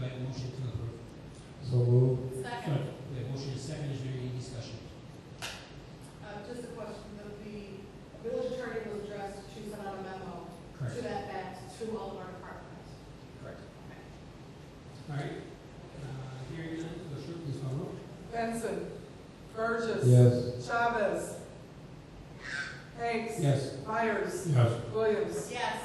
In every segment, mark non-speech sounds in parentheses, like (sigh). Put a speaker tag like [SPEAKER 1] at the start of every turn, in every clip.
[SPEAKER 1] motion to approve?
[SPEAKER 2] So move.
[SPEAKER 3] Second.
[SPEAKER 1] We have motion and second, is there any discussion?
[SPEAKER 4] Uh, just a question, the, the village attorney was addressed to send out a memo to
[SPEAKER 1] Correct.
[SPEAKER 4] that fact to all of our departments.
[SPEAKER 1] Correct. All right, uh, hearing none, Bushra, please call roll.
[SPEAKER 3] Benson. Burgess.
[SPEAKER 2] Yes.
[SPEAKER 3] Chavez. Hanks.
[SPEAKER 1] Yes.
[SPEAKER 3] Myers.
[SPEAKER 2] Yes.
[SPEAKER 3] Williams.
[SPEAKER 4] Yes,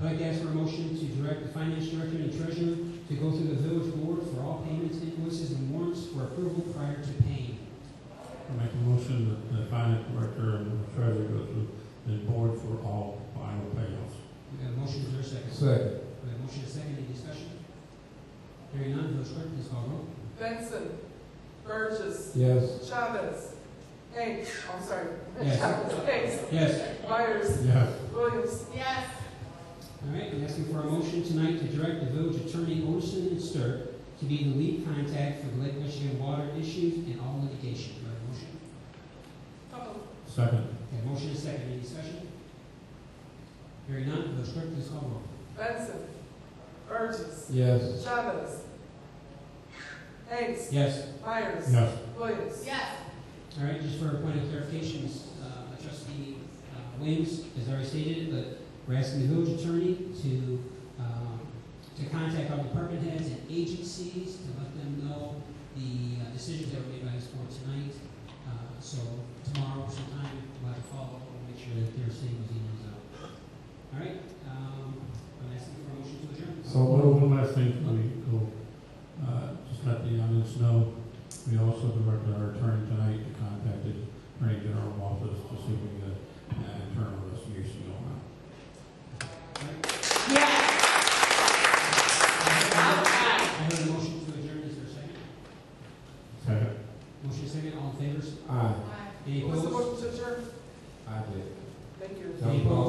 [SPEAKER 1] I'd like to ask for a motion to direct the finance director and treasurer to go through the village board for all payments, invoices, and warrants for approval prior to paying.
[SPEAKER 5] Make a motion that the finance director and the treasurer go through the board for all final payoffs.
[SPEAKER 1] We have a motion, is there a second?
[SPEAKER 2] Second.
[SPEAKER 1] We have a motion and second, any discussion? Hearing none, village clerk, please call roll.
[SPEAKER 3] Benson. Burgess.
[SPEAKER 2] Yes.
[SPEAKER 3] Chavez. Hanks. I'm sorry. (laughs)
[SPEAKER 1] Yes.
[SPEAKER 3] Hanks.
[SPEAKER 1] Yes.
[SPEAKER 3] Myers.
[SPEAKER 5] Yes.
[SPEAKER 3] Williams.
[SPEAKER 4] yes,
[SPEAKER 1] All right, I'm asking for a motion tonight to direct the village attorney, Olson and Sturt, to be the lead contact for the Lake Michigan water issues and all litigation. Do I have a motion?
[SPEAKER 4] so moved.
[SPEAKER 5] Second.
[SPEAKER 1] Okay, motion is second, any discussion? Hearing none, village clerk, please call roll.
[SPEAKER 3] Benson. Burgess.
[SPEAKER 2] Yes.
[SPEAKER 3] Chavez. Hanks.
[SPEAKER 1] Yes.
[SPEAKER 3] Myers.
[SPEAKER 5] Yes.
[SPEAKER 3] Williams.
[SPEAKER 4] yes,
[SPEAKER 1] All right, just for a point of clarification, uh, trustee uh, Williams has already stated it, but we're asking the village attorney to, um, to contact all department heads and agencies to let them know the uh, decisions that were made by this board tonight. Uh, So tomorrow sometime, we'll have a follow-up, we'll make sure that they're seeing those emails out. All right, um, I'm asking for a motion to adjourn.
[SPEAKER 2] So
[SPEAKER 5] One
[SPEAKER 2] moved.
[SPEAKER 5] one last thing before we go, uh, just let the audience know, we also directed our attorney tonight to contact the Attorney General Office to see if we uh, can get an internal investigation going on.
[SPEAKER 4] yes.
[SPEAKER 1] I heard a motion to adjourn, is there a second?
[SPEAKER 5] Second.
[SPEAKER 1] Motion second, all in favor?
[SPEAKER 2] Aye.
[SPEAKER 4] Aye.
[SPEAKER 1] Any
[SPEAKER 3] What's the
[SPEAKER 1] opposed?
[SPEAKER 3] motion to adjourn?
[SPEAKER 2] I did.
[SPEAKER 3] Thank you.
[SPEAKER 1] Any opposed?